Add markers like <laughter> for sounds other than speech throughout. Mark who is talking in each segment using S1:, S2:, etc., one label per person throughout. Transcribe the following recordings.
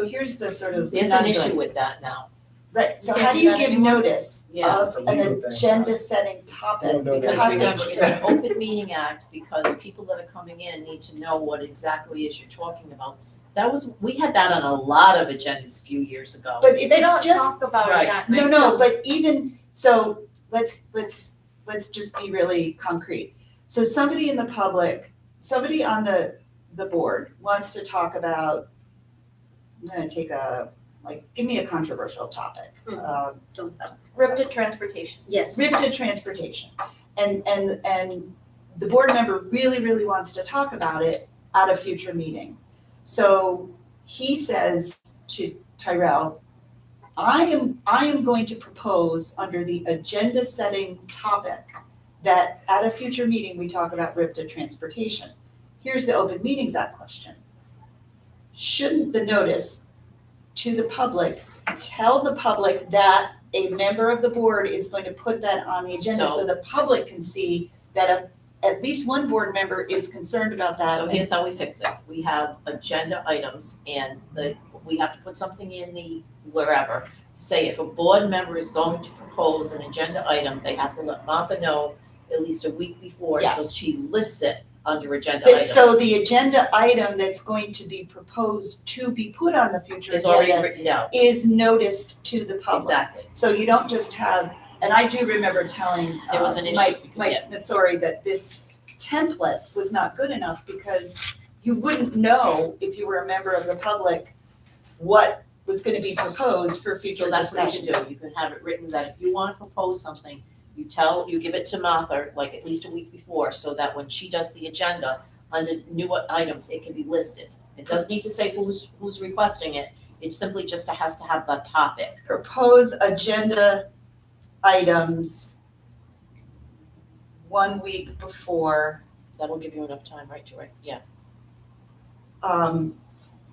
S1: So here's the sort of
S2: There's an
S1: conundrum.
S2: issue with that now,
S1: Right, so
S3: You
S1: how
S3: can't
S1: do
S3: do
S1: you
S3: that
S1: give
S3: anymore?
S1: notice
S2: Yeah.
S1: of
S4: It's a
S1: an
S4: legal thing.
S1: agenda-setting
S4: We
S1: topic?
S4: don't know that
S1: How
S2: because
S1: do you-
S2: remember, it's an open meeting act, because people that are coming in need to know what exactly is you're talking about. That was, we had that on a lot of agendas a few years ago.
S1: But if it's
S3: They don't
S1: just,
S3: talk about
S2: Right.
S3: it that night.
S1: no, no,
S3: so-
S1: but even, so let's, let's, let's just be really concrete. So somebody in the public, somebody on the, the board wants to talk about, I'm gonna take a, like, give me a controversial topic.
S3: Hmm.
S1: Um,
S3: Ripped at transportation.
S5: uh, Yes.
S1: ripped to transportation. And, and, and the board member really, really wants to talk about it at a future meeting. So he says to Tyrell, I am, I am going to propose under the agenda setting topic that at a future meeting, we talk about ripped to transportation. Here's the open meetings act question. Shouldn't the notice to the public tell the public that a member of the board is going to put that on the agenda
S2: So-
S1: so the public can see that a, at least one board member is concerned about that.
S2: So
S1: and-
S2: here's how we fix it, we have agenda items and the, we have to put something in the wherever. Say if a board member is going to propose an agenda item, they have to let Martha know at least a week before, so
S1: Yes.
S2: she lists it under agenda
S1: But
S2: items.
S1: so the agenda item that's going to be proposed to be put on the future
S2: Is already
S1: agenda
S2: written down,
S1: is noticed to the public.
S2: exactly,
S1: So you don't just have, and I do remember telling
S2: There was
S1: uh,
S2: an issue,
S1: Mike,
S2: yeah.
S1: Mike Missori that this template was not good enough because you wouldn't know if you were a member of the public what was gonna be proposed for future
S2: so
S1: discussion.
S2: that's what you can do, you can have it written that if you wanna propose something, you tell, you give it to Martha, like at least a week before, so that when she does the agenda, under new items, it can be listed. It doesn't need to say who's, who's requesting it, it simply just has to have that topic.
S1: propose agenda items one week before,
S2: That'll give you enough time, right, to write, yeah.
S1: um,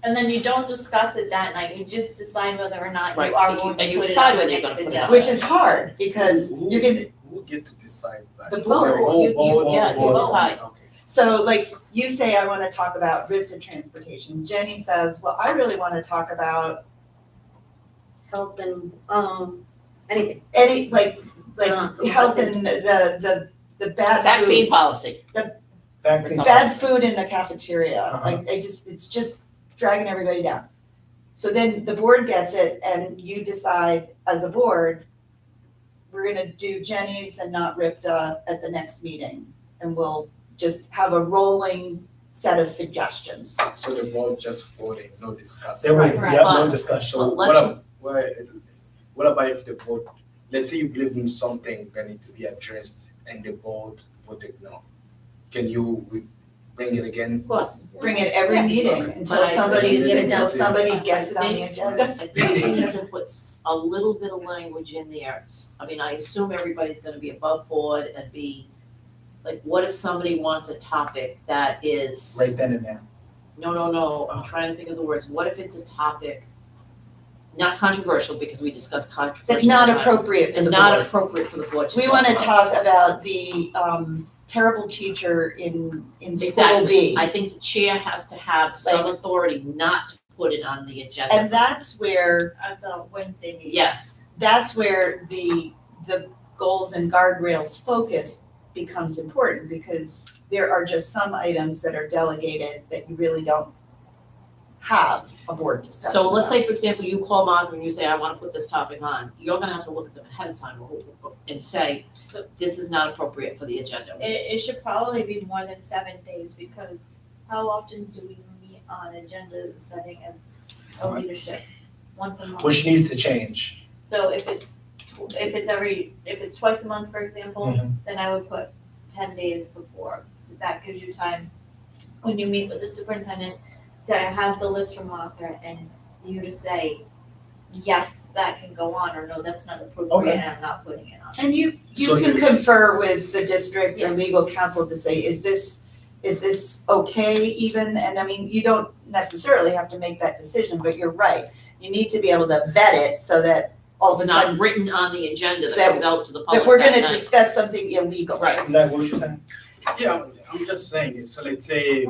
S3: And then you don't discuss it that night, you just decide whether or not
S2: Right,
S3: you are
S2: and you-
S3: going
S2: and
S3: to
S2: you
S3: put it
S2: decide
S3: on the
S2: whether you're
S3: next
S2: gonna put it
S3: agenda.
S2: on.
S1: which is hard because
S4: Who-
S1: you're gonna,
S4: Who get to decide that?
S1: The
S4: Is
S1: vote.
S4: there a
S2: Oh,
S4: whole
S2: You- you-
S4: vote
S2: yeah,
S4: or
S2: you
S4: vote?
S2: decide.
S4: Okay.
S1: so like you say, I wanna talk about RIP to transportation. Jenny says, well, I really wanna talk about
S5: Health and, um, anything.
S1: any, like, like
S5: Uh, something.
S1: health and the, the, the bad food.
S2: Vaccine policy,
S4: Vaccine.
S1: bad food in the cafeteria,
S4: Uh-huh.
S1: like, I just, it's just dragging everybody down. So then the board gets it and you decide as a board, we're gonna do Jenny's and not Ripta at the next meeting. And we'll just have a rolling set of suggestions.
S4: So the vote just voted, no discussion.
S6: There will,
S3: Right.
S6: yeah, no
S2: But-
S6: discussion.
S4: So
S2: Well,
S4: what
S2: let's-
S4: ab- what, what about if the vote, let's say you believe in something that need to be addressed and the vote voted no. Can you re- bring it again?
S2: of course.
S1: Bring it every
S3: Yeah.
S1: meeting
S4: Okay.
S1: until
S2: But I-
S1: somebody,
S4: Get it
S1: until
S4: down.
S1: somebody gets it on the agenda.
S2: I think we
S4: <laughs>
S2: need to put s- a little bit of language in there. S- I mean, I assume everybody's gonna be above board and be, like, what if somebody wants a topic that is,
S6: Right then and there.
S2: no, no, no, I'm trying to think of the words, what if it's a topic not controversial, because we discuss controversial.
S1: That's not
S2: topics,
S1: appropriate for the
S2: And
S1: board.
S2: not appropriate for the board to
S1: We want to
S2: about.
S1: talk about the um, terrible teacher in, in school
S2: Exactly.
S1: B.
S2: I think the chair has to have some authority not to put it on the
S1: And
S2: agenda.
S1: that's where,
S3: At the Wednesday meeting.
S2: Yes,
S1: that's where the, the goals and guardrails focus becomes important because there are just some items that are delegated that you really don't have a board discussion
S2: so let's
S1: about.
S2: say, for example, you call Martha and you say, I wanna put this topic on, you're gonna have to look at them ahead of time and say,
S3: So
S2: this is not appropriate for the agenda.
S3: it, it should probably be more than seven days, because how often do we meet on agenda setting as a
S6: Once.
S3: leadership? Once a month.
S6: Which needs to change.
S3: So if it's, tw- if it's every, if it's twice a month, for example,
S6: Mhm.
S3: then I would put ten days before. That gives you time, when you meet with the superintendent, to have the list from Martha and you to say, yes, that can go on, or no, that's not appropriate,
S6: Okay.
S3: and I'm not putting it on.
S1: And you, you
S4: So
S1: can
S4: you-
S1: confer with the district or
S3: Yeah.
S1: legal counsel to say, is this, is this okay even? And I mean, you don't necessarily have to make that decision, but you're right. You need to be able to vet it so that all of a
S2: It's
S1: sudden
S2: not written on the agenda that
S1: That-
S2: comes out to the public
S1: that we're
S2: that
S1: gonna
S2: night.
S1: discuss something illegal.
S2: Right.
S6: Like, what was you saying?
S4: Yeah, I'm just saying, it. so let's say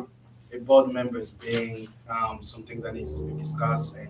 S4: a board member is being, um, something that needs to be discussed and